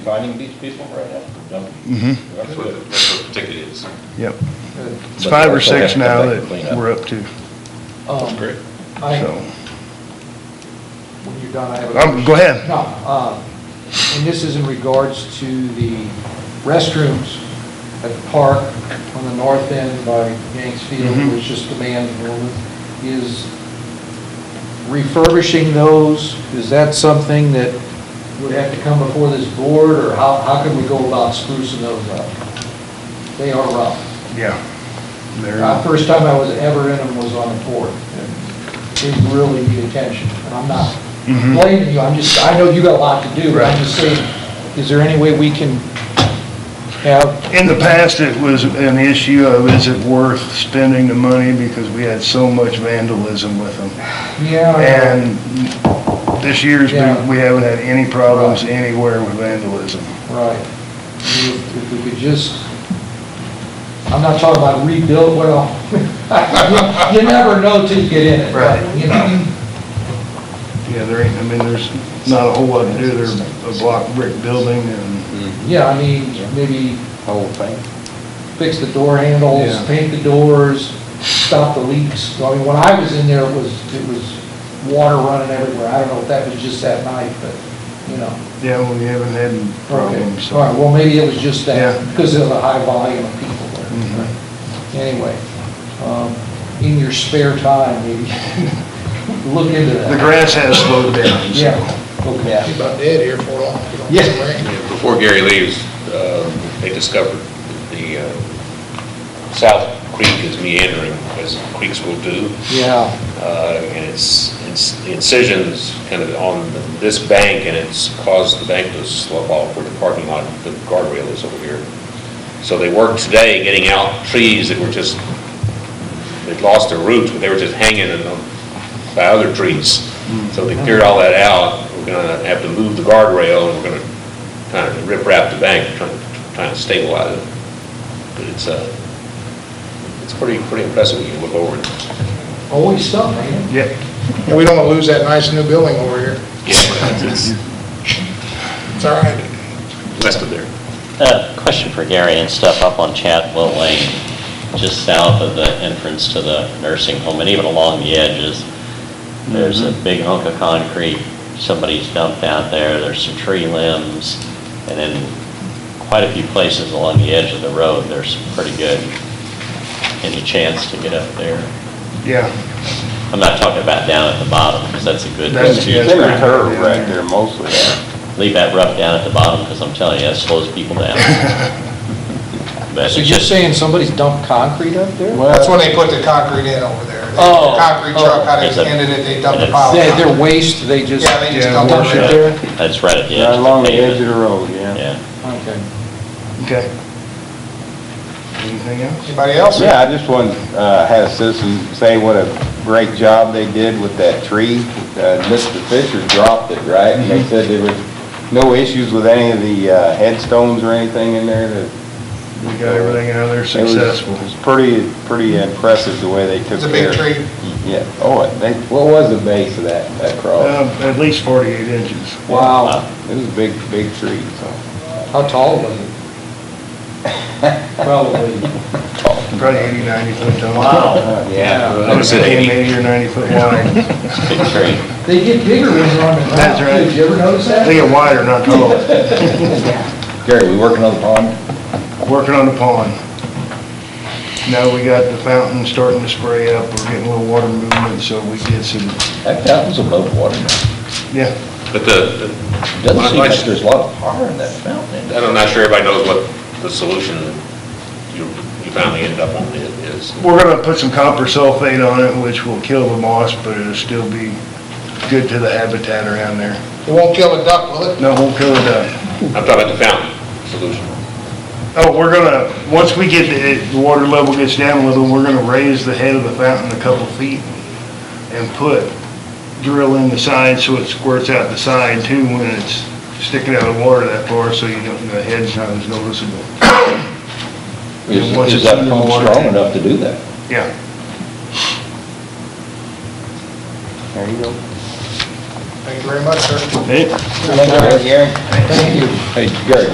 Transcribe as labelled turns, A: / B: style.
A: finding these people right now. No. That's
B: That's what,
A: good.
B: the- that's what the ticket is.
C: Mm-hmm. Yep. It's
A: But
C: five
A: they
C: or
A: also have
C: six
A: to come
C: now
A: back
C: that
A: and clean up.
C: we're up to,
A: That's
D: Um,
A: great.
D: I,
C: so.
D: when you're done, I have a.
C: Um, go ahead.
D: No, uh, and this is in regards to the restrooms at the park on the north end by Yanks Field,
C: Mhm.
D: which is demanding, is refurbishing those, is that something that would have to come before this board, or how, how can we go about sprucing those up? They are rough.
C: Yeah.
D: Uh,
C: There,
D: First time I was ever in them was on the board, and they really need attention, and I'm not
C: Mhm.
D: blaming you, I'm just, I know you got a lot to do, but I'm just saying, is there any way we can have,
C: in the past, it was an issue of is it worth spending the money because we had so much vandalism with them.
D: yeah, I
C: And this year's, we
D: Yeah.
C: we haven't had any problems anywhere with vandalism.
D: know, right. I mean, If if we could just, I'm not talking about rebuild, well, you- you never know till you get in it.
C: Right.
D: You know,
C: Yeah, there ain't, I mean, there's not a whole lot to do. They're a block brick building and,
D: yeah, I mean, maybe
A: Whole thing.
D: fix the door handles,
C: Yeah.
D: paint the doors, stop the leaks. I mean, when I was in there, it was, it was water running everywhere. I don't know if that was just that night, but, you know.
C: yeah, we haven't had
D: Okay,
C: problems. so.
D: all right, well, maybe it was just that,
C: Yeah.
D: because of the high volume of people
C: Mhm.
D: there. Anyway, um, in your spare time, maybe, look into
C: The
D: that.
C: grass has slowed down, so.
D: Yeah, okay.
E: About dead here for long. if you don't
D: Yeah.
E: get the rain.
B: Before Gary leaves, uh,
F: um,
B: they discovered the uh, South Creek is meandering, as creeks will do.
D: Yeah,
B: uh, and it's, it's the incisions kind of on this bank, and it's caused the bank to slope off where the parking lot, the guardrail is over here. So they worked today getting out trees that were just, they'd lost their roots, but they were just hanging in them by other trees. So they cleared all that out, we're gonna have to move the guardrail, and we're gonna kind of rip-rap the bank, trying, trying to stabilize it. But it's, uh, it's pretty, pretty impressive when you look over it.
D: always something, man.
C: Yeah.
E: And we don't want to lose that nice new building over here.
B: Yeah, it's
E: It's all right.
B: west of there.
G: A Uh, question for Gary and stuff up on Chatwell Lane, just south of the entrance to the nursing home and even along the edges. There's a
D: Mm-hmm.
G: big hunk of concrete somebody's dumped out there. There's some tree limbs. And in quite a few places along the edge of the road, there's some pretty good, any chance to get up there.
C: Yeah.
G: I'm not talking about down at the bottom because that's a good.
C: That's- yeah,
F: They
C: that's-
F: return right there mostly.
G: Leave that rough down at the bottom because I'm telling you, that slows people down. But
D: So
G: it's
D: you're
G: just-
D: saying somebody's dumped concrete up there?
E: That's when they put the concrete in over there. They-
D: Oh,
E: the Concrete
D: oh.
E: truck had
G: It's a-
E: extended it, they dumped
G: it's-
E: a pile. of
D: They- Their
E: concrete.
D: waste, they just,
E: Yeah, they just
C: Yeah,
E: dumped
C: wash
E: it
C: it.
E: right
G: Yeah,
E: there.
G: That's right at the edge.
F: Right along the edge
G: pavement.
F: of the road, yeah.
G: Yeah.
D: okay.
C: Okay. Anything else?
E: Anybody else?
F: Yeah, I just wanted, uh, had a citizen say what a great job they did with that tree. Uh, Mr. Fisher dropped it, right? And they said there was no issues with any of the uh, headstones or anything in there that.
C: We got everything out of there
F: It was-
C: successful.
F: It was pretty, pretty impressive the way they took care.
E: It's a big
F: of it.
E: tree.
F: Yeah, oh, it- they, what was the base of that, that cross?
C: Um, At least 48 inches.
D: Wow,
F: It was a big, big tree, so.
D: how tall was it? Probably.
C: Probably 80, 90 foot tall.
F: Uh, Yeah.
B: I would say
C: Maybe
B: 80.
C: 80 or 90 foot wide.
G: Big tree.
D: They get bigger when they're on the ground.
C: That's right.
D: Did you ever notice that?
C: They get wider, not taller.
F: Gary, we working on the pond?
C: Working on the pond. Now we got the fountain starting to spray up. We're getting a little water movement, so we get some,
F: That fountain's above water now.
C: yeah.
B: But the, the-
F: Doesn't
B: I'm
F: seem
B: not
F: like
B: su-
F: there's a lot of power in that fountain.
B: I'm not sure everybody knows what the solution you, you finally ended up on i- is.
C: We're gonna put some copper sulfate on it, which will kill the moss, but it'll still be good to the habitat around there.
E: It won't kill a duck, will it?
C: No, it won't kill the duck.
B: I'm talking about the fountain solution.
C: Oh, we're gonna, once we get, the the water level gets down a little, we're gonna raise the head of the fountain a couple feet and put, drill in the side so it squirts out the side too when it's sticking out of the water that far, so you don't, the head's not as noticeable. And once
F: Is,
C: it's
F: is that
C: under the
F: pump
C: water-
F: strong enough to do that?
C: Yeah.
F: There you go.
H: Thank you very much, sir.
E: Hey.
C: Thank you, Gary.